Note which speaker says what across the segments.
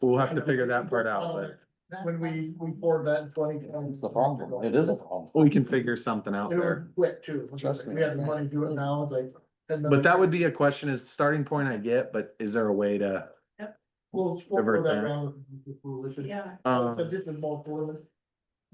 Speaker 1: we'll have to figure that part out, but
Speaker 2: When we, we poured that in twenty.
Speaker 3: It's the problem. It is a problem.
Speaker 1: we can figure something out
Speaker 2: It
Speaker 1: there.
Speaker 2: were quick too. It was
Speaker 3: Trust
Speaker 2: like,
Speaker 3: me.
Speaker 2: We had the money to do it now, it's like.
Speaker 1: But that would be a question is starting point I get, but is there a way to,
Speaker 2: We'll, we'll
Speaker 1: divert
Speaker 2: go that
Speaker 1: that.
Speaker 2: round with the coalition.
Speaker 4: Yeah,
Speaker 1: um,
Speaker 2: So this is more coalition.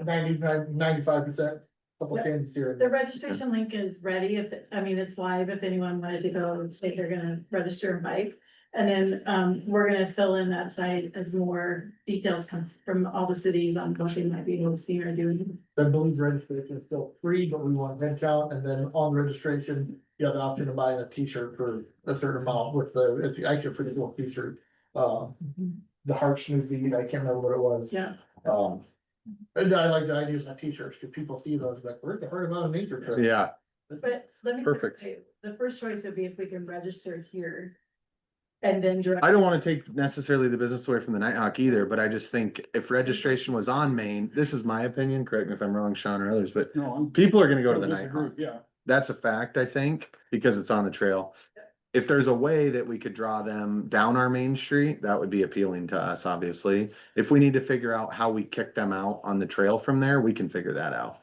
Speaker 2: Ninety-five, ninety-five percent, couple
Speaker 4: Yeah.
Speaker 2: cans here.
Speaker 4: the registration link is ready if, I mean, it's live if anyone wanted to go and say they're gonna register and bike. And then um, we're gonna fill in that site as more details come from all the cities on what they might be able to see or doing.
Speaker 2: I believe registration is still free, but we want head count, and then on registration, you have the option to buy a T-shirt for a certain amount with the, it's actually a pretty cool T-shirt. Uh, the heart smoothie, I can't remember what it was.
Speaker 4: Yeah,
Speaker 2: Um, and I like the idea of the T-shirts, because people see those, like, where's the heart of Mother nature? trip?"
Speaker 1: yeah,
Speaker 4: but let me.
Speaker 1: Perfect.
Speaker 4: The first choice would be if we can register here. And then direct.
Speaker 1: I don't want to take necessarily the business away from the Nighthawk either, but I just think if registration was on Maine, this is my opinion, correct me if I'm wrong, Sean or others, but
Speaker 3: No, I'm.
Speaker 1: people are gonna go to the Nighthawk.
Speaker 3: Yeah.
Speaker 1: That's a fact, I think, because it's on the trail. If there's a way that we could draw them down our main street, that would be appealing to us, obviously. If we need to figure out how we kick them out on the trail from there, we can figure that out.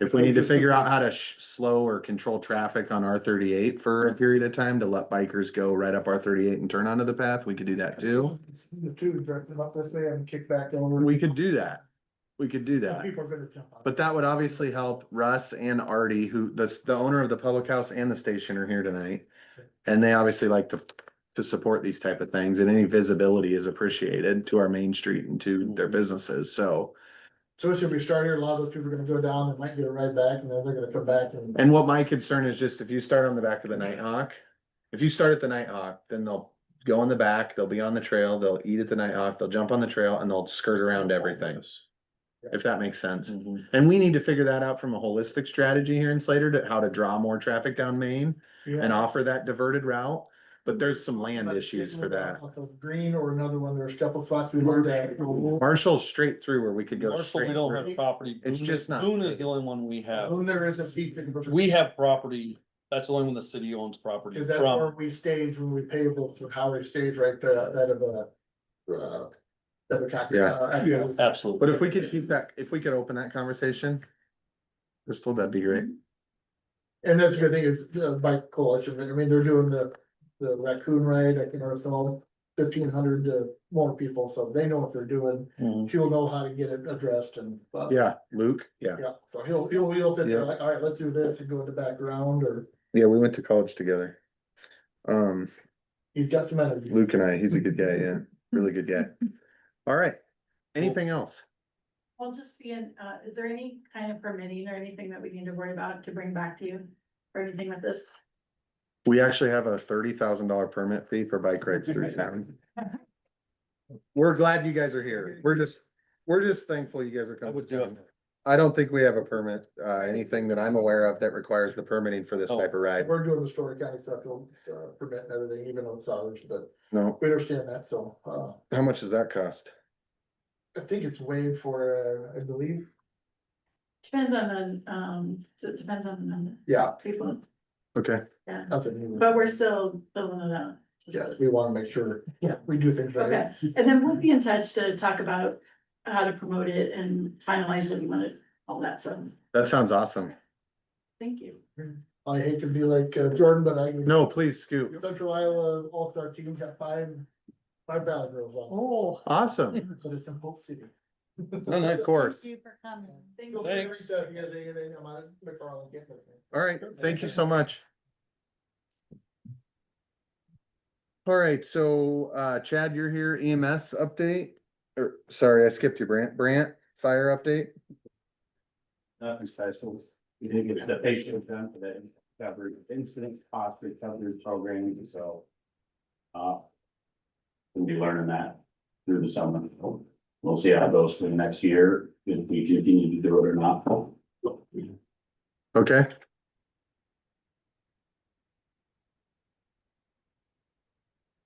Speaker 1: If we need to figure out how to sh- slow or control traffic on R thirty-eight for a period of time to let bikers go right up R thirty-eight and turn onto the path, we could do that too.
Speaker 2: The two direct them up this way and kick back over.
Speaker 1: We could do that. We could do that.
Speaker 2: People are gonna jump on.
Speaker 1: But that would obviously help Russ and Artie, who the, the owner of the public house and the station are here tonight. And they obviously like to, to support these type of things and any visibility is appreciated to our main street and to their businesses. So.
Speaker 2: So should we start here? A lot of those people are gonna go down and might get a ride back and then they're gonna come back and.
Speaker 1: And what my concern is just if you start on the back of the Nighthawk, if you start at the Nighthawk, then they'll go in the back, they'll be on the trail, they'll eat at the Nighthawk, they'll jump on the trail and they'll skirt around everything. If that makes sense.
Speaker 3: Mm-hmm.
Speaker 1: And we need to figure that out from a holistic strategy here in Slater to how to draw more traffic down Main and offer that diverted route. But there's some land issues for that.
Speaker 2: Green or another one, there's a couple spots we learned that.
Speaker 1: Marshall straight through where we could go
Speaker 3: Marshall,
Speaker 1: straight.
Speaker 3: we don't
Speaker 1: through.
Speaker 3: have property.
Speaker 1: It's
Speaker 3: Boone-
Speaker 1: just not
Speaker 3: Boone is
Speaker 1: big.
Speaker 3: the only one we have.
Speaker 2: When there is a seat.
Speaker 3: We have property. That's the only one the city owns property
Speaker 2: Is that where
Speaker 3: from.
Speaker 2: we stage when we pay bills for how we stage right there, that of a. uh, That we talked
Speaker 1: Yeah.
Speaker 2: about.
Speaker 3: Absolutely.
Speaker 1: But if we could keep that, if we could open that conversation. Crystal, that'd be great.
Speaker 2: And that's the good thing is, uh, bike coalition, I mean, they're doing the, the raccoon ride, I can all fifteen hundred to more people, so they know what they're doing.
Speaker 3: Mhm.
Speaker 2: He'll know how to get it addressed and. uh,
Speaker 1: Yeah, Luke, yeah.
Speaker 2: Yeah, so he'll, he'll, he'll sit there like, all right, let's do this and go in the background, or
Speaker 1: Yeah, we went to college together. Um,
Speaker 2: he's got some energy.
Speaker 1: Luke and I, he's a good guy, yeah, really good guy. All right. Anything else?
Speaker 4: I'll just be in, uh, is there any kind of permitting or anything that we need to worry about to bring back to you? Or anything with this?
Speaker 1: We actually have a thirty thousand dollar permit fee for bike rides through town. We're glad you guys are here. We're just, we're just thankful you guys are
Speaker 3: I
Speaker 1: coming.
Speaker 3: would do it.
Speaker 1: I don't think we have a permit, uh, anything that I'm aware of that requires the permitting for this
Speaker 3: Oh.
Speaker 1: type of ride.
Speaker 2: We're doing the story county stuff, he'll, uh, permit and everything, even on salvage, but
Speaker 1: No,
Speaker 2: we understand that, so, uh.
Speaker 1: how much does that cost?
Speaker 2: I think it's waived for, uh, I believe,
Speaker 4: Depends on the, um, so it depends on the number
Speaker 2: yeah,
Speaker 4: of people,
Speaker 1: Okay,
Speaker 4: yeah,
Speaker 2: nothing new.
Speaker 4: but we're still filling it out. just
Speaker 2: Yes, we wanna make sure, yeah, we do things right.
Speaker 4: Okay, and then we'll be in touch to talk about how to promote it and finalize what you want it, all that, so,
Speaker 1: that sounds awesome.
Speaker 4: thank you.
Speaker 2: I hate to be like uh, Jordan, but I.
Speaker 1: No, please scoot.
Speaker 2: Central Iowa All-Star Team got five, five Valley Girls on,
Speaker 4: Oh.
Speaker 1: Awesome.
Speaker 2: but it's in Polk City.
Speaker 1: No, no, of course.
Speaker 4: you for coming. Thank
Speaker 2: Feel
Speaker 4: you.
Speaker 2: free to
Speaker 3: Thanks.
Speaker 2: reach out if you guys have anything. I'm on McFarland campus.
Speaker 1: All right, thank you so much. All right, so, uh, Chad, you're here EMS update, or, sorry, I skipped you, Brant, Brant, fire update?
Speaker 5: Nothing special. We did get the patient done for the recovery, incident cost recovery program, so. Uh. We'll be learning that through the summer. We'll see how it goes for the next year, if we continue to do it or not.
Speaker 1: Okay.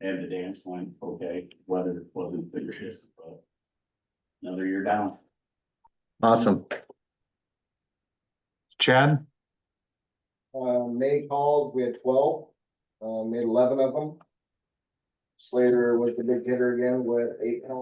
Speaker 5: And the dance went okay, weather wasn't the greatest, but. Another year down.
Speaker 1: Awesome. Chad?
Speaker 6: Uh, May calls, we had twelve, uh, made eleven of them. Slater was the big hitter again with eight penalties.